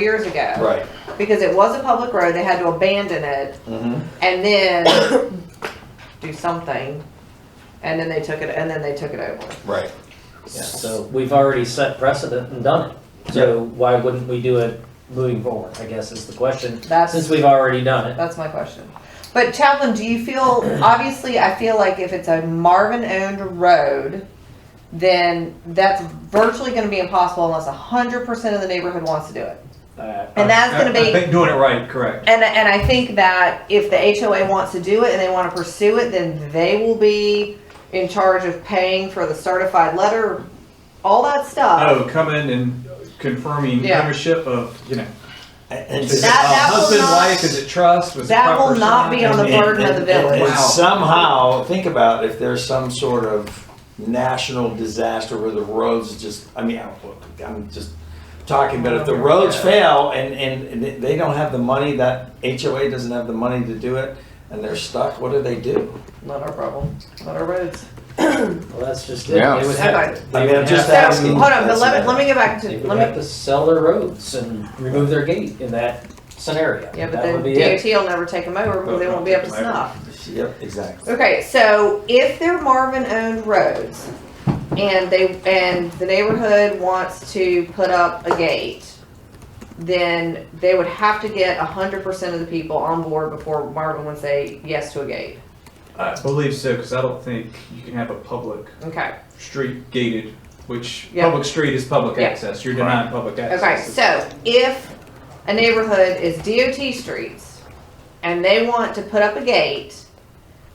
years ago. Right. Because it was a public road, they had to abandon it Mm-hmm. and then do something. And then they took it, and then they took it over. Right. Yeah. So we've already set precedent and done it. So why wouldn't we do it moving forward, I guess is the question, since That's, we've already done it. that's my question. But Chaplain, do you feel, obviously, I feel like if it's a Marvin-owned road, then that's virtually gonna be impossible unless hundred percent of the neighborhood wants to do it. Uh, And that's gonna I- I be- think Doing it right, correct. And, and I think that if the HOA wants to do it and they want to pursue it, then they will be in charge of paying for the certified letter, all that stuff. Oh, come in and confirming Uh, Yeah. ownership of, you know, And is it uh, that will husband, not- wife, is it trust, was it That will proper not be on the sign? And- burden of the and- and- village. And Wow. somehow, think about if there's some sort of national disaster where the roads just, I mean, I'm- I'm just talking, but if Oh, the roads fail and, and they- they don't have the money, that HOA doesn't have the money to do it, and they're stuck, what do they do? Not our problem, not our roads. Well, that's just it. Yeah. They would have, Okay. they I mean, would I'm So, just have- asking- hold on, but that's let me, about- let me get back to, They would let have me, to sell their roads and remove their gate in that scenario. yeah, but That then would be it. DOT will never take them over because they won't be up to snuff. Yep, exactly. Okay, so if they're Marvin-owned roads and they, and the neighborhood wants to put up a gate, then they would have to get a hundred percent of the people on board before Marvin would say yes to a gate. I believe so, because I don't think you can have a public Okay, street gated, which, Yeah. public street is public Yeah. access, you're denying public okay, access. so if a neighborhood is DOT streets and they want to put up a gate,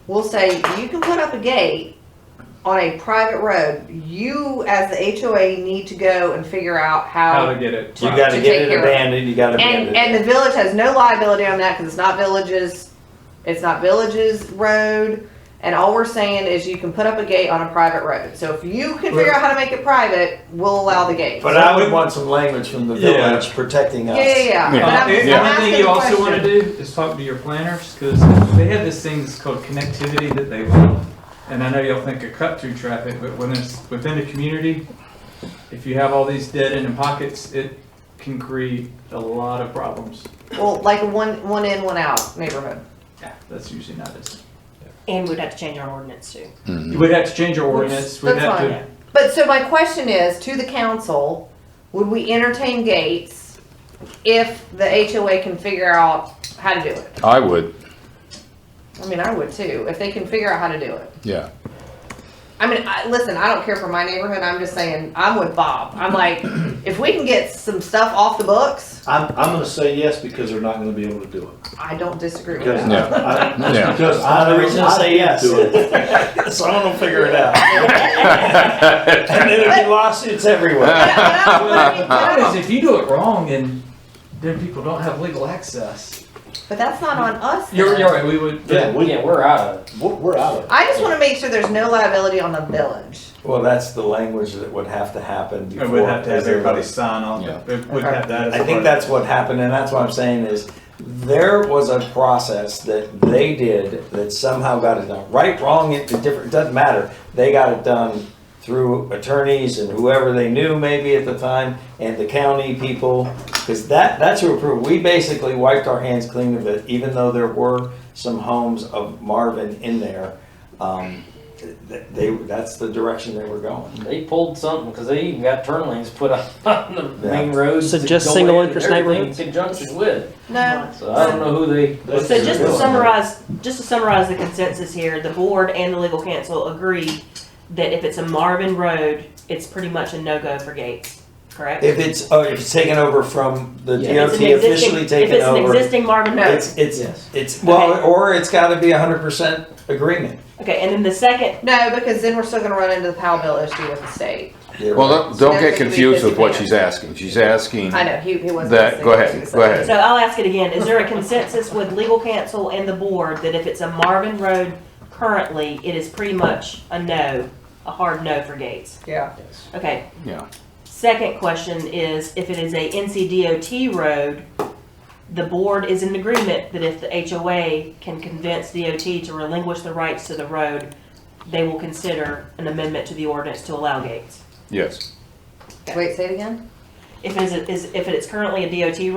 we'll say, you can put up a gate on a private road. You, as the HOA, need to go and figure out How to get it. You right. gotta To get take it care of- abandoned, you gotta abandon And, it. and the village has no liability on that because it's not villages, it's not villages road. And all we're saying is you can put up a gate on a private road. So if you can figure out how to make it private, we'll allow the gate. But I would want some language from the Yeah. village protecting Yeah, us. yeah, yeah. But Yeah. I'm- Uh, I'm and Yeah. One thing asking you the also want to question. do is talk to your planners, because they have this thing that's called connectivity that they love. And I know y'all think of cut through traffic, but when it's within the community, if you have all these dead end and pockets, it can create a lot of problems. Well, like a one, one in, one out neighborhood. Yeah, that's usually not as. And we'd have to change our ordinance too. You would have to change your ordinance, we'd That's have fine. to. But so my question is to the council, would we entertain gates if the HOA can figure out how to do it? I would, I mean, I would too, if they can figure out how to do it. yeah. I mean, I, listen, I don't care for my neighborhood. I'm just saying, I'm with Bob. I'm like, if we can get some stuff off the books, I'm, I'm gonna say yes because they're not gonna be able to do it. I don't disagree with Because- that. No, I- no. Because I'm I the know reason to I say did yes. do it. Someone will figure it out. And then there'll be lawsuits everywhere. But I- but I- but I mean, The problem but I- is, if you do it wrong, then, then people don't have legal access. But that's not on us. You're, though. you're right, we would. Yeah, we, Yeah, we're out of it. we're we're out of it. I just want to make sure there's no liability on the village. Well, that's the language that would have to happen before. It would have to have is there- everybody sign on, Yeah. it would have that as I part think of- that's what happened, and that's what I'm saying is, there was a process that they did that somehow got it done. Right, wrong, it, it different, it doesn't matter. They got it done through attorneys and whoever they knew maybe at the time, and the county people, because that, that's who approved. We basically wiped our hands clean of it, even though there were some homes of Marvin in there. Um, th- they, that's the direction they were going. They pulled something, because they even got turn lanes put up on the main roads. So that just go single in and interest everything neighborhoods? In conjunction with, No. so I don't know who they. what So they're just to doing. summarize, just to summarize the consensus here, the board and the legal counsel agree that if it's a Marvin Road, it's pretty much a no-go for gates, correct? If it's, oh, if it's taken over from the Yeah. DOT If it's an existing- officially taken If it's an over, existing Marvin Road, it's, it's, Yes. it's, well, Okay. or it's gotta be a hundred percent agreement. okay, and then the second, No, because then we're still going to run into the Powell bill issue with the state. You're Well, right. don't, don't There's get gonna be confused with what disadvantage. she's asking. She's asking, I know, he, he wasn't. listening That- go to ahead, what you go said. ahead. so I'll ask it again, is there a consensus with legal counsel and the board that if it's a Marvin Road currently, it is pretty much a no, a hard no for gates? Yeah. Okay, yeah, Second question is, if it is a NCDOT road, the board is in agreement that if the HOA can convince DOT to relinquish the rights to the road, they will consider an amendment to the ordinance to allow gates. yes. Wait, say it again? If it is, is- if it is currently a DOT